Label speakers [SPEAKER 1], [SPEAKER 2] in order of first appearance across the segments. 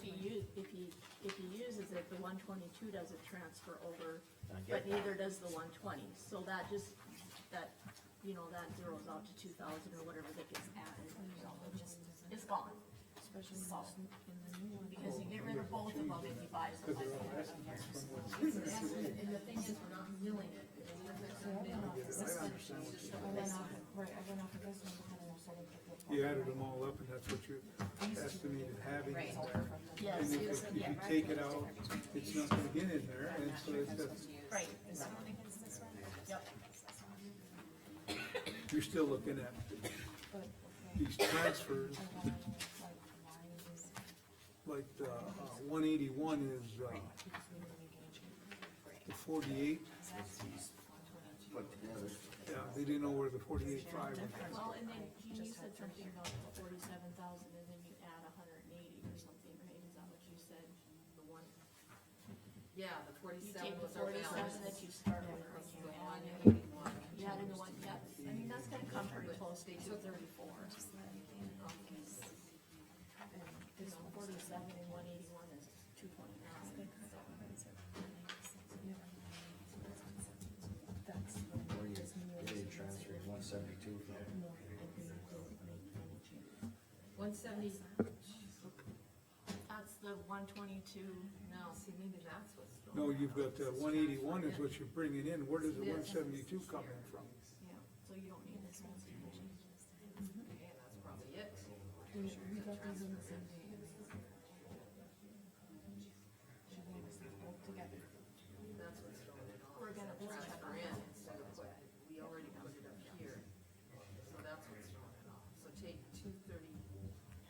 [SPEAKER 1] if he, if he uses it, the one twenty-two doesn't transfer over,
[SPEAKER 2] I
[SPEAKER 1] but
[SPEAKER 2] get that.
[SPEAKER 1] neither does the one twenty, so that just, that, you know, that zeroes out to two thousand or whatever that gets added, you know, it just, it's gone. So, because you get rid of both of them if you buy them like that.
[SPEAKER 3] And the thing is, we're not milling it.
[SPEAKER 4] You added them all up and that's what you estimated having in there.
[SPEAKER 1] Yes,
[SPEAKER 4] And if it- if you take it out, it's not gonna get in there, and so it's, that's-
[SPEAKER 1] right,
[SPEAKER 4] you're still looking at these transfers, like, uh, one eighty-one is, uh, the forty-eight. Yeah, they didn't know where the forty-eight five was.
[SPEAKER 1] well, and then Jean, you said something about forty-seven thousand and then you add a hundred and eighty or something, right, is that what you said? The one,
[SPEAKER 3] Yeah, the
[SPEAKER 1] you
[SPEAKER 3] forty-seven
[SPEAKER 1] take the
[SPEAKER 3] was Oh, our balance.
[SPEAKER 1] forty-seven that you start with,
[SPEAKER 3] This is
[SPEAKER 1] and
[SPEAKER 3] the
[SPEAKER 1] you
[SPEAKER 3] one
[SPEAKER 1] add it.
[SPEAKER 3] eighty-one.
[SPEAKER 1] You add in the one, yep, I mean, that's gonna come pretty close
[SPEAKER 3] They
[SPEAKER 1] to
[SPEAKER 3] took
[SPEAKER 1] thirty-four. um, It's forty-seven and one eighty-one is two twenty-nine.
[SPEAKER 2] Where you, where you transferring one seventy-two from?
[SPEAKER 3] One seventy,
[SPEAKER 1] That's the one twenty-two,
[SPEAKER 3] no, see, maybe that's what's. wrong.
[SPEAKER 4] No, you've got the one eighty-one is what you're bringing in, where does the one seventy-two come in from?
[SPEAKER 1] yeah, so you don't need this one.
[SPEAKER 3] Okay, that's probably it. That's what's throwing it off.
[SPEAKER 1] We're gonna
[SPEAKER 3] It's a
[SPEAKER 1] put it
[SPEAKER 3] transfer
[SPEAKER 1] on.
[SPEAKER 3] in instead of what, we already put it up here. So that's what's throwing it off. So take two thirty,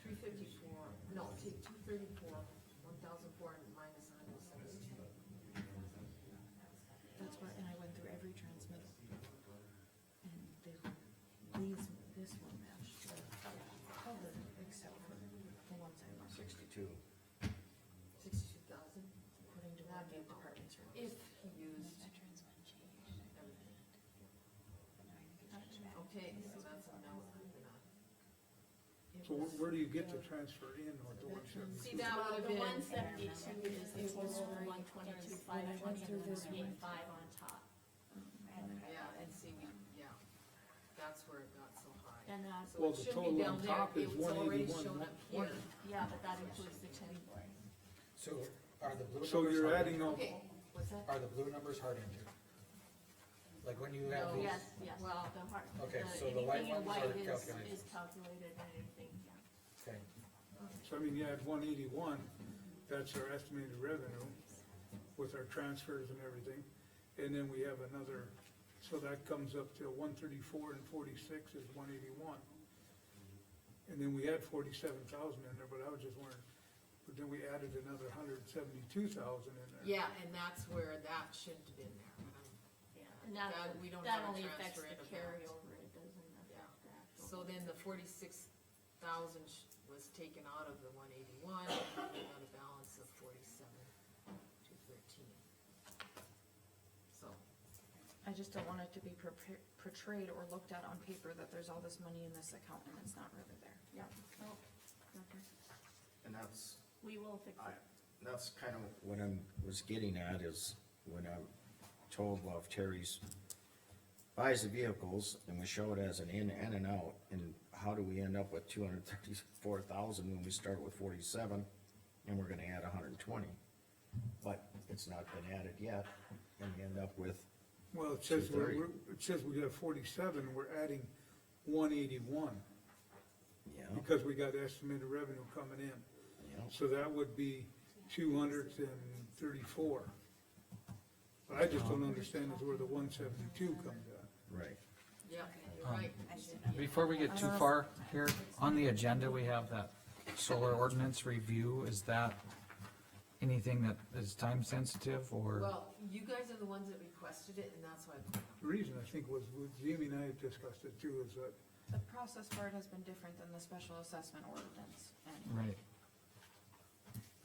[SPEAKER 3] three fifty-four, no, take two thirty-four, one thousand four and minus a hundred seventy-two.
[SPEAKER 5] That's why, and I went through every transmittal. And they, these, this one matched the color except for the ones I marked
[SPEAKER 2] Sixty-two.
[SPEAKER 3] Sixty-two thousand,
[SPEAKER 5] according to what the department's report.
[SPEAKER 3] if he used everything. Okay, so that's a no, moving on.
[SPEAKER 4] So where, where do you get the transfer in or the one seventy-two?
[SPEAKER 3] See, that
[SPEAKER 1] Well,
[SPEAKER 3] would have
[SPEAKER 1] the one
[SPEAKER 3] been,
[SPEAKER 1] seventy-two is the total one twenty-two, five twenty, and then eight five on top.
[SPEAKER 3] yeah, and see, we, yeah, that's where it got so high.
[SPEAKER 1] And uh, that's,
[SPEAKER 3] So
[SPEAKER 4] Well,
[SPEAKER 3] it
[SPEAKER 4] the
[SPEAKER 3] should be
[SPEAKER 4] total
[SPEAKER 3] down
[SPEAKER 4] on
[SPEAKER 3] there.
[SPEAKER 4] top
[SPEAKER 3] It
[SPEAKER 4] is
[SPEAKER 3] was already
[SPEAKER 4] 181,
[SPEAKER 3] shown up here.
[SPEAKER 1] yeah,
[SPEAKER 4] 120.
[SPEAKER 1] but that includes the ten.
[SPEAKER 6] So are the blue numbers?
[SPEAKER 4] So you're
[SPEAKER 6] hard-
[SPEAKER 4] adding up,
[SPEAKER 3] Okay, what's that?
[SPEAKER 6] Are the blue numbers hard entered? Like when you
[SPEAKER 3] No.
[SPEAKER 6] have these?
[SPEAKER 1] Yes, yes, the
[SPEAKER 3] Well,
[SPEAKER 1] heart, the,
[SPEAKER 6] okay, so the white
[SPEAKER 1] anything in
[SPEAKER 6] ones
[SPEAKER 1] white
[SPEAKER 6] are
[SPEAKER 1] is,
[SPEAKER 6] calculated.
[SPEAKER 1] is calculated and anything, yeah.
[SPEAKER 6] Okay,
[SPEAKER 4] so I mean, you add one eighty-one, that's our estimated revenue with our transfers and everything. And then we have another, so that comes up to one thirty-four and forty-six is one eighty-one. And then we had forty-seven thousand in there, but I was just wondering, but then we added another hundred and seventy-two thousand in there.
[SPEAKER 3] Yeah, and that's where that shouldn't have been there, but I'm-
[SPEAKER 1] And that,
[SPEAKER 3] That- we don't
[SPEAKER 1] that
[SPEAKER 3] have a
[SPEAKER 1] only
[SPEAKER 3] transfer
[SPEAKER 1] affects
[SPEAKER 3] in
[SPEAKER 1] the
[SPEAKER 3] of that.
[SPEAKER 1] carryover, it doesn't affect the actual.
[SPEAKER 3] so then the forty-six thousand was taken out of the one eighty-one, and we got a balance of forty-seven, two thirteen. So,
[SPEAKER 5] I just don't want it to be prepa- portrayed or looked at on paper that there's all this money in this account and it's not really there.
[SPEAKER 1] Yeah,
[SPEAKER 3] Oh,
[SPEAKER 1] nope, okay.
[SPEAKER 2] And that's,
[SPEAKER 1] we will fix
[SPEAKER 2] I,
[SPEAKER 1] it.
[SPEAKER 2] that's kind of. What I'm, was getting at is when I told Love Terry's buys the vehicles and we show it as an in and an out, and how do we end up with two hundred thirty-four thousand when we start with forty-seven and we're gonna add hundred and twenty? But it's not been added yet, and we end up with,
[SPEAKER 4] Well, it says, we're,
[SPEAKER 2] 230.
[SPEAKER 4] we're- it says we got forty-seven, we're adding one eighty-one,
[SPEAKER 2] yeah,
[SPEAKER 4] because we got estimated revenue coming in.
[SPEAKER 2] yeah.
[SPEAKER 4] So that would be two hundred and thirty-four. But I just don't understand is where the one seventy-two comes at.
[SPEAKER 2] Right.
[SPEAKER 3] yeah, you're right.
[SPEAKER 6] before we get too far here, on the agenda, we have that solar ordinance review, is that anything that is time sensitive or?
[SPEAKER 3] Well, you guys are the ones that requested it, and that's why,
[SPEAKER 4] The reason I think was, was Jamie and I had discussed it too, is that
[SPEAKER 5] The process for it has been different than the special assessment ordinance and
[SPEAKER 6] Right,